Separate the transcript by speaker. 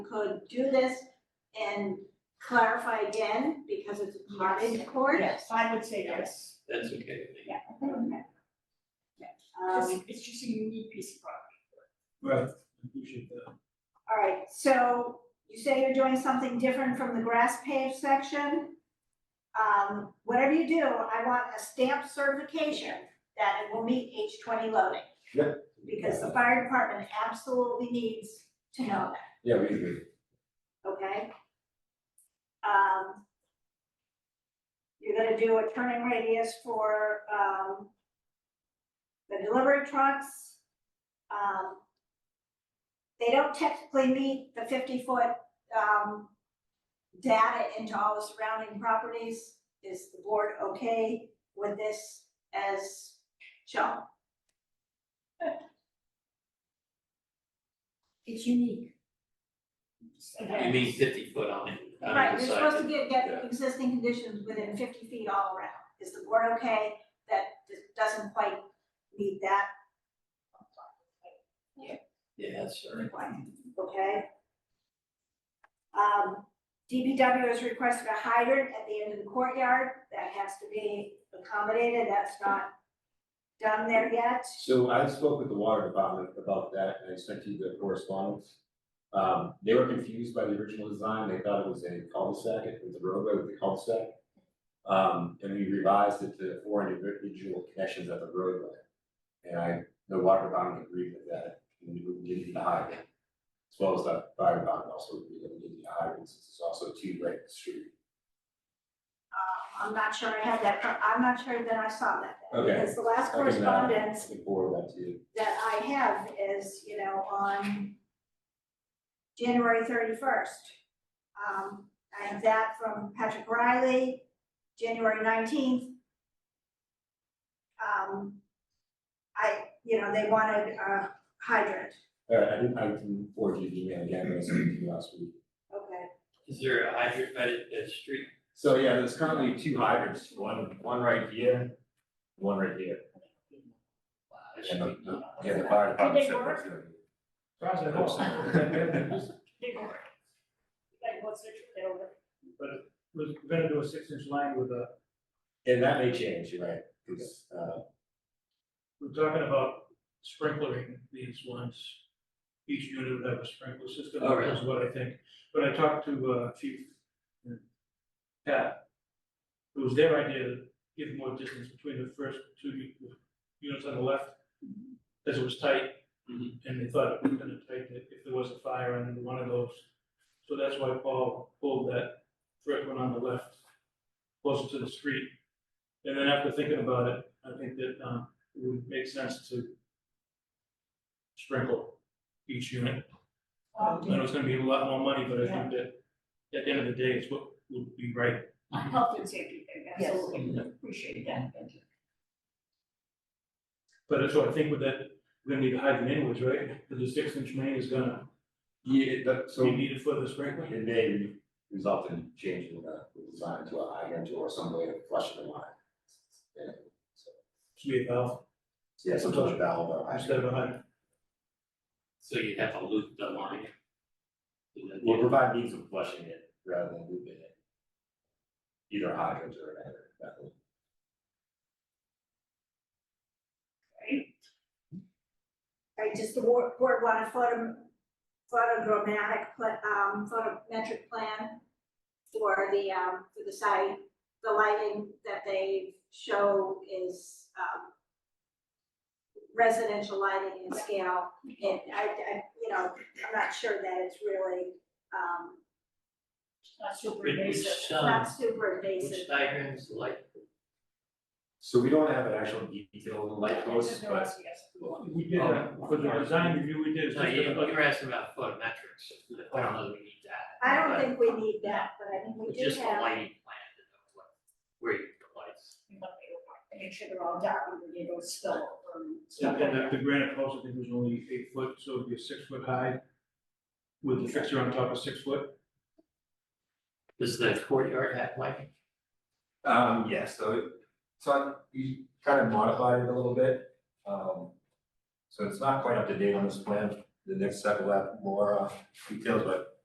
Speaker 1: could do this and clarify again, because it's a cottage court.
Speaker 2: Yes, I would say yes.
Speaker 3: That's okay with me.
Speaker 2: Yeah.
Speaker 1: Um,
Speaker 2: It's, it's just a unique piece of property.
Speaker 4: Right, I appreciate that.
Speaker 1: all right, so you say you're doing something different from the grass paved section. Um, whatever you do, I want a stamp certification that it will meet H twenty loading.
Speaker 5: Yeah.
Speaker 1: Because the fire department absolutely needs to know that.
Speaker 5: Yeah, we agree.
Speaker 1: okay? Um. You're gonna do a turning radius for, um, the delivery trucks. Um, they don't technically meet the fifty-foot, um, data into all the surrounding properties. Is the board okay with this as shown?
Speaker 2: It's unique.
Speaker 3: You mean fifty foot on it, on
Speaker 1: Right,
Speaker 3: either
Speaker 1: you're
Speaker 3: side.
Speaker 1: supposed to get, get
Speaker 5: yeah.
Speaker 1: existing conditions within fifty feet all around. Is the board okay that this doesn't quite meet that
Speaker 3: Yeah, that's all right.
Speaker 1: requirement? Okay? Um, DPW has requested a hydrant at the end of the courtyard. That has to be accommodated. That's not done there yet.
Speaker 5: So I spoke with the water department about that and I sent you the correspondence. Um, they were confused by the original design. They thought it was a cul-de-sac, it was a roadway with a cul-de-sac. Um, and we revised it to four individual connections at the roadway. And I, the water department agreed with that, and we would give you the hydrant. As well as the fire department also agreed that we give you the hydrant, since it's also two right street.
Speaker 1: Uh, I'm not sure I had that, I'm not sure that I saw that.
Speaker 5: Okay.
Speaker 1: Because the last
Speaker 5: I can, uh,
Speaker 1: correspondence
Speaker 5: I can forward that to you.
Speaker 1: that I have is, you know, on January thirty-first. Um, I have that from Patrick Riley, January nineteenth. Um, I, you know, they wanted a hydrant,
Speaker 5: All right, I didn't, I can forward you the email again, but I sent it to you last week.
Speaker 1: okay.
Speaker 3: Is there a hydrant by the, the street?
Speaker 5: So yeah, there's currently two hydrants, one, one right here, one right here.
Speaker 3: The
Speaker 5: And the,
Speaker 3: street?
Speaker 5: the, yeah, the fire department said that's gonna be-
Speaker 4: Roger,
Speaker 5: Awesome.
Speaker 2: Big one. Like, what's the, they don't,
Speaker 4: But it was, we're gonna do a six inch line with a,
Speaker 5: And that may change, you're right, 'cause, uh,
Speaker 4: we're talking about sprinklering these ones. Each unit would have a sprinkler system,
Speaker 3: Oh, really?
Speaker 4: is what I think, but I talked to uh Chief. uh, Pat. It was their idea to give more distance between the first two u- units on the left, as it was tight.
Speaker 3: Mhm.
Speaker 4: And they thought it would have been tight if if there was a fire on one of those, so that's why Paul pulled that first one on the left. Closer to the street, and then after thinking about it, I think that um it would make sense to. Sprinkle each unit
Speaker 2: um,
Speaker 4: I know it's gonna be a lot more money, but I think that at the end of the day, it's what would be right.
Speaker 2: health and safety thing, absolutely, appreciate that.
Speaker 4: But so I think with that, we're gonna need to hide them anyways, right? Because the six inch main is gonna
Speaker 5: yeah, that, so
Speaker 4: be
Speaker 5: it
Speaker 4: needed for the sprinkler.
Speaker 5: may result in changing the the design to a hydrant or some way of flushing the line. Yeah, so,
Speaker 4: Should be a valve
Speaker 5: Yeah, some sort of valve or hydrant.
Speaker 4: instead of a hydrant.
Speaker 3: So you have to loop the line. So that
Speaker 5: Will
Speaker 3: you-
Speaker 5: provide means of flushing it rather than looping it. Either a hydrant or an hydrant, that would-
Speaker 1: Right, does the board, board want a photo, photogrammatic, pla- um, photometric plan for the, um, for the site? The lighting that they show is, um, residential lighting in scale. And I, I, you know, I'm not sure that it's really, um,
Speaker 2: Not super
Speaker 3: Which-
Speaker 2: invasive.
Speaker 3: Which,
Speaker 1: not
Speaker 3: um,
Speaker 1: super
Speaker 3: which
Speaker 1: invasive.
Speaker 3: diagram is like,
Speaker 5: So we don't have an actual detail on the light post,
Speaker 2: Just no
Speaker 5: but
Speaker 2: us, yes.
Speaker 4: We did, uh, for the design review, we did, it's
Speaker 3: no,
Speaker 4: just
Speaker 3: you, you
Speaker 4: about-
Speaker 3: were asking about photometrics. I don't know that we need that.
Speaker 1: I don't
Speaker 3: but
Speaker 1: think we need that, but I mean, we do
Speaker 3: Just a
Speaker 1: have,
Speaker 3: lighting plan to know what, where you put lights.
Speaker 2: We want to Make sure they're all dark, and they don't spill over and stuff
Speaker 4: And
Speaker 2: like
Speaker 4: then
Speaker 2: that.
Speaker 4: the- the granite post, I think, was only eight foot, so it'd be a six foot high with the fixture on top of six foot.
Speaker 3: Does the courtyard have lighting?
Speaker 5: um, yeah, so it, so I- we kind of modified it a little bit. Um, so it's not quite up to date on this plan, the next step will have more uh, details, but